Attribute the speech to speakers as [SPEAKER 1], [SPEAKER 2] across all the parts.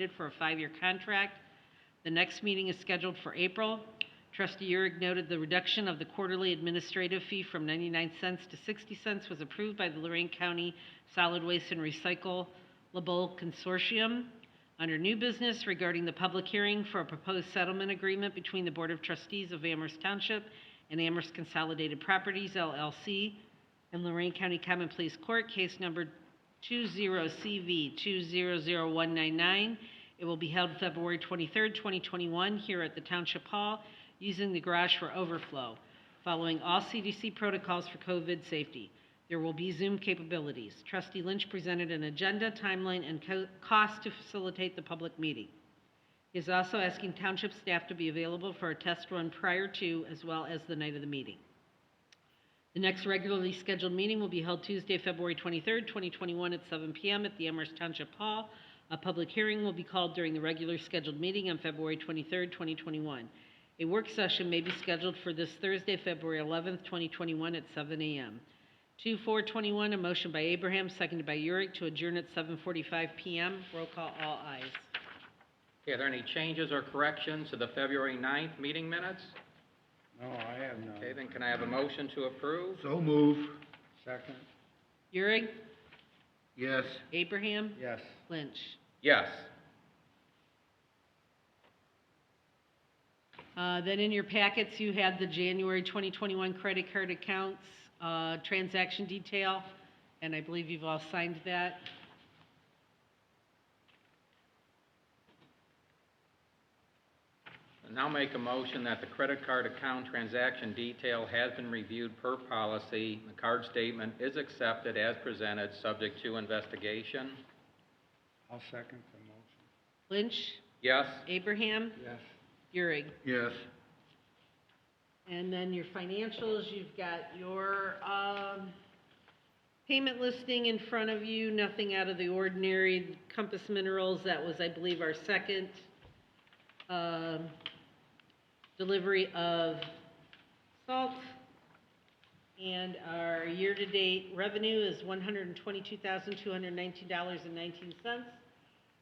[SPEAKER 1] bid for a five-year contract. The next meeting is scheduled for April. Trustee Urich noted the reduction of the quarterly administrative fee from 99 cents to 60 cents was approved by the Lorraine County Solid Waste and Recyclable Consortium. Under new business regarding the public hearing for a proposed settlement agreement between the Board of Trustees of Amherst Township and Amherst Consolidated Properties LLC and Lorraine County Common Pleas Court, case number 20CV200199. It will be held February 23rd, 2021, here at the Township Hall, using the garage for overflow, following all CDC protocols for COVID safety. There will be Zoom capabilities. Trustee Lynch presented an agenda, timeline, and co- cost to facilitate the public meeting. He is also asking township staff to be available for a test run prior to, as well as the night of the meeting. The next regularly scheduled meeting will be held Tuesday, February 23rd, 2021, at 7 p.m. at the Amherst Township Hall. A public hearing will be called during the regular scheduled meeting on February 23rd, 2021. A work session may be scheduled for this Thursday, February 11th, 2021, at 7 a.m. 2421, a motion by Abraham, seconded by Urick, to adjourn at 7:45 p.m. Roll call, all ayes.
[SPEAKER 2] Okay, are there any changes or corrections to the February 9th meeting minutes?
[SPEAKER 3] No, I have
[SPEAKER 2] Okay,
[SPEAKER 3] none.
[SPEAKER 2] then can I have a motion to approve?
[SPEAKER 4] So move.
[SPEAKER 3] Second?
[SPEAKER 1] Urick,
[SPEAKER 4] Yes.
[SPEAKER 1] Abraham,
[SPEAKER 3] Yes.
[SPEAKER 1] Lynch.
[SPEAKER 2] Yes.
[SPEAKER 1] Uh, Then in your packets, you had the January 2021 credit card accounts, uh, transaction detail, and I believe you've all signed that.
[SPEAKER 2] And I'll make a motion that the credit card account transaction detail has been reviewed per policy. The card statement is accepted as presented, subject to investigation.
[SPEAKER 3] I'll second the
[SPEAKER 1] Lynch,
[SPEAKER 2] Yes?
[SPEAKER 1] Abraham,
[SPEAKER 3] motion. Yes.
[SPEAKER 1] Euring.
[SPEAKER 4] Yes.
[SPEAKER 1] And then your financials, you've got your um, payment listing in front of you, nothing out of the ordinary. Compass Minerals, that was, I believe, our second um, delivery of salt. And our year-to-date revenue is $122,219.19.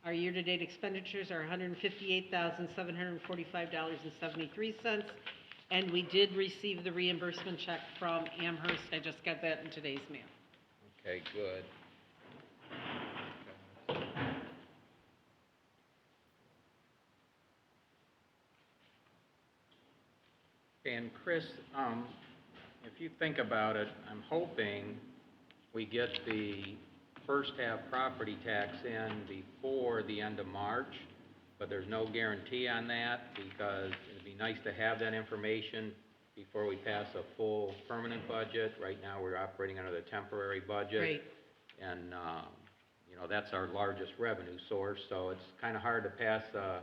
[SPEAKER 1] Our year-to-date expenditures are $158,745.73. And we did receive the reimbursement check from Amherst. I just got that in today's mail.
[SPEAKER 2] Okay, good. And Chris, um, if you think about it, I'm hoping we get the first half property tax in before the end of March, but there's no guarantee on that because it'd be nice to have that information before we pass a full permanent budget. Right now, we're operating under the temporary budget.
[SPEAKER 1] Right.
[SPEAKER 2] And, um, you know, that's our largest revenue source, so it's kind of hard to pass a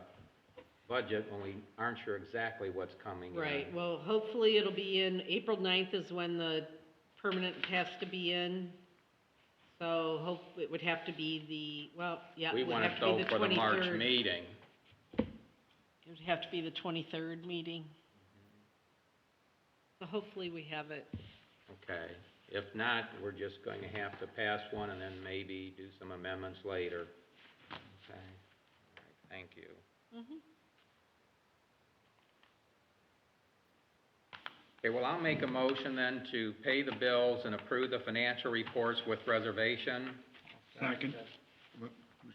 [SPEAKER 2] budget when we aren't sure exactly what's coming in.
[SPEAKER 1] Right, well, hopefully it'll be in, April 9th is when the permanent has to be in. So hope, it would have to be the, well, yeah,
[SPEAKER 2] We
[SPEAKER 1] it would
[SPEAKER 2] want it
[SPEAKER 1] have to
[SPEAKER 2] though
[SPEAKER 1] be the 23rd.
[SPEAKER 2] for the March meeting.
[SPEAKER 1] It would have to be the 23rd meeting. So hopefully we have it.
[SPEAKER 2] Okay, if not, we're just going to have to pass one and then maybe do some amendments later. Okay, All right. thank you.
[SPEAKER 1] Mhm.
[SPEAKER 2] Okay, well, I'll make a motion then to pay the bills and approve the financial reports with reservation.
[SPEAKER 4] Second. Who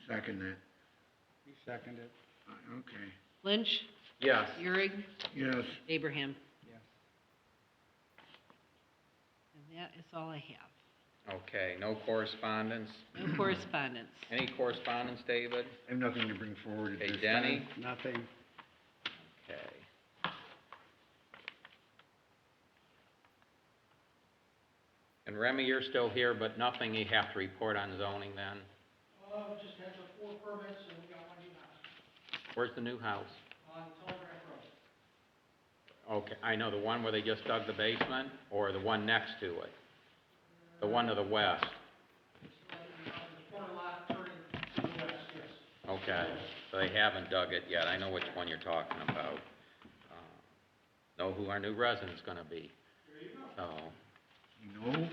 [SPEAKER 4] second that?
[SPEAKER 3] You seconded?
[SPEAKER 4] Uh, Okay.
[SPEAKER 1] Lynch,
[SPEAKER 2] Yes.
[SPEAKER 1] Euring,
[SPEAKER 4] Yes.
[SPEAKER 1] Abraham.
[SPEAKER 3] Yes.
[SPEAKER 1] And that is all I have.
[SPEAKER 2] Okay, no correspondence.
[SPEAKER 1] No correspondence.
[SPEAKER 2] Any correspondence, David?
[SPEAKER 4] I have nothing to bring forward at
[SPEAKER 2] Hey,
[SPEAKER 4] this time.
[SPEAKER 2] Denny?
[SPEAKER 3] Nothing.
[SPEAKER 2] Okay. And Remy, you're still here, but nothing you have to report on zoning then?
[SPEAKER 5] Uh, just had the four permits and we got one new house
[SPEAKER 2] Where's the new house?
[SPEAKER 5] on Telegraph Road.
[SPEAKER 2] Okay, I know, the one where they just dug the basement, or the one next to it? The one to the west?
[SPEAKER 5] It's like, you know, the corner lot turning to the west, yes.
[SPEAKER 2] Okay, so they haven't dug it yet, I know which one you're talking about. Uh, Know who our new resident's gonna be,
[SPEAKER 5] There you go.
[SPEAKER 2] so,
[SPEAKER 4] You know?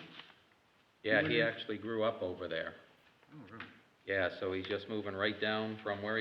[SPEAKER 2] yeah, he actually grew up over there.
[SPEAKER 4] Oh, really?
[SPEAKER 2] Yeah, so he's just moving right down from where